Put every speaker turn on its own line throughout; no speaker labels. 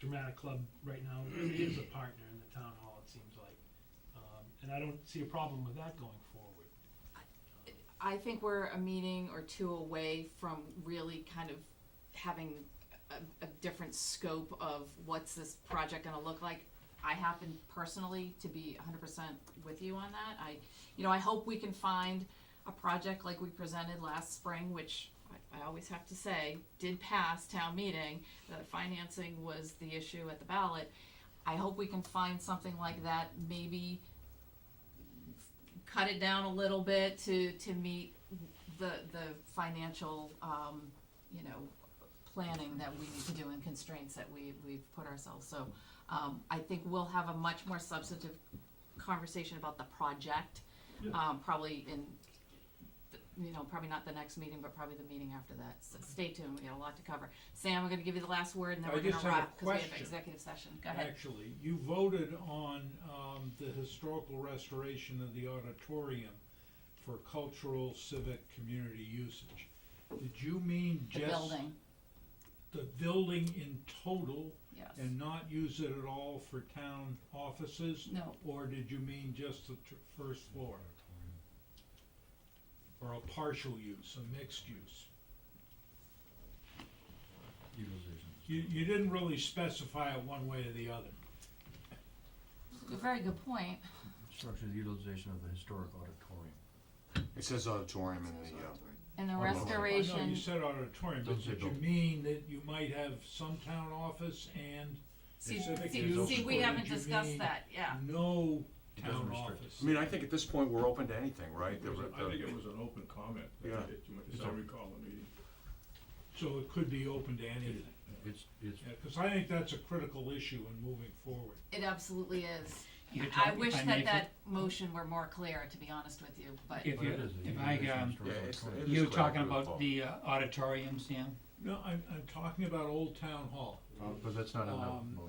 dramatic club right now really is a partner in the town hall, it seems like. Um, and I don't see a problem with that going forward.
I think we're a meeting or two away from really kind of having a, a different scope of what's this project gonna look like. I happen personally to be hundred percent with you on that. I, you know, I hope we can find a project like we presented last spring, which I, I always have to say, did pass town meeting, that financing was the issue at the ballot. I hope we can find something like that, maybe cut it down a little bit to, to meet the, the financial, um, you know, planning that we need to do and constraints that we, we've put ourselves, so, um, I think we'll have a much more substantive conversation about the project,
Yeah.
um, probably in, th- you know, probably not the next meeting, but probably the meeting after that, so stay tuned, we got a lot to cover. Sam, I'm gonna give you the last word, and then
I
we're gonna
just have a
wrap, cause we have
question.
executive session, go ahead.
Actually, you voted on, um, the historical restoration of the auditorium for cultural, civic, community usage. Did you mean
The
just?
building,
The building in total
yes,
and not use it at all for town offices?
no,
Or did you mean just the tr- first floor? Or a partial use, a mixed use?
Utilization.
You, you didn't really specify it one way or the other.
very good point.
Structure the utilization of the historic auditorium.
It says auditorium in the, uh,
And the
Oh, no, no, no.
I know
restoration,
you said auditorium, but
Doesn't say
did you
building.
mean that you might have some town office and
see,
Civic
see,
is
see, we
open.
haven't
You
discussed
mean-
that, yeah.
no
It doesn't
town
restrict.
office?
I mean, I think at this point, we're open to anything, right?
It was a-
The-
I
the-
think it was an open comment,
Yeah.
that it- as I recall the meeting.
So it could be open to anything,
It's, it's,
yeah, cause I think that's a critical issue in moving forward.
It absolutely is.
You're
I
talking-
wish
if I
that
may-
that motion were more clear, to be honest with you, but
If
but it
you,
is a
if I,
utilization of
um,
historic
Yeah, it's-
auditorium.
it is
you were
clear,
talking
good
about
call.
the uh, auditorium, Sam,
No, I'm, I'm talking about Old Town Hall.
Uh, But that's not in
Um,
the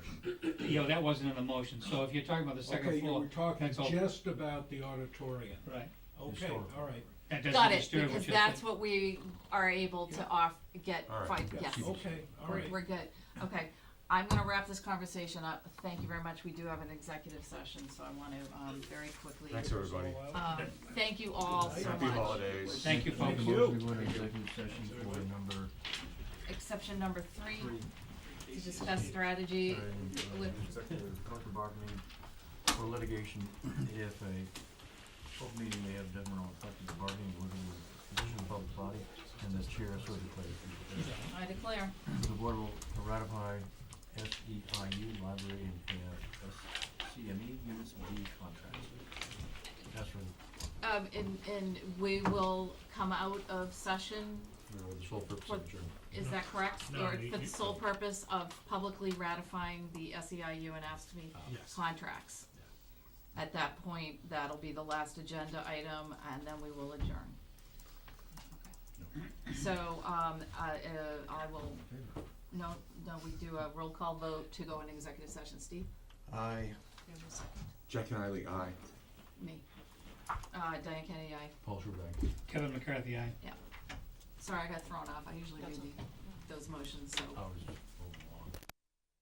motion.
you know, that wasn't in the motion, so if you're talking about the
Okay,
second
you were
floor,
talking
that's all.
just about the auditorium,
right,
okay,
Historical.
alright,
that
got
doesn't
it,
disturb
because
what you're
that's
saying.
what we are able to
Yeah. Oh,
off, get,
All right,
fine,
yeah,
yes,
keep it.
okay, alright.
we're good, okay. I'm gonna wrap this conversation up, thank you very much, we do have an executive session, so I wanna, um, very quickly.
Thanks, everybody.
uh,
Um, thank you all so
Happy
much.
holidays.
Thank you,
Thank
folks.
you.
We go into executive session for number
Exception number three,
three.
to discuss strategy
And,
with
uh, Collective bargaining for litigation if a open meeting may have detrimental effect on the bargaining with the position of the public body and the chair so declares.
I declare.
The board will ratify SEIU library and uh, CME units B contracts. That's for
Um, and, and we will come out of session
the sole purpose
of
adjournment.
Is that correct?
No,
Or
you-
for the
you-
sole purpose of publicly ratifying the SEIU and ASME
Yes.
contracts? At that point, that'll be the last agenda item, and then we will adjourn. So, um, I, uh, I will, no, no, we do a roll call vote to go into executive session. Steve?
Aye.
Jack and Eileen, aye.
Me? Uh, Diane Kennedy, aye.
Paul Schubert.
Kevin McCarthy, aye.
Sorry, I got thrown off. I usually do the, those motions, so.
I was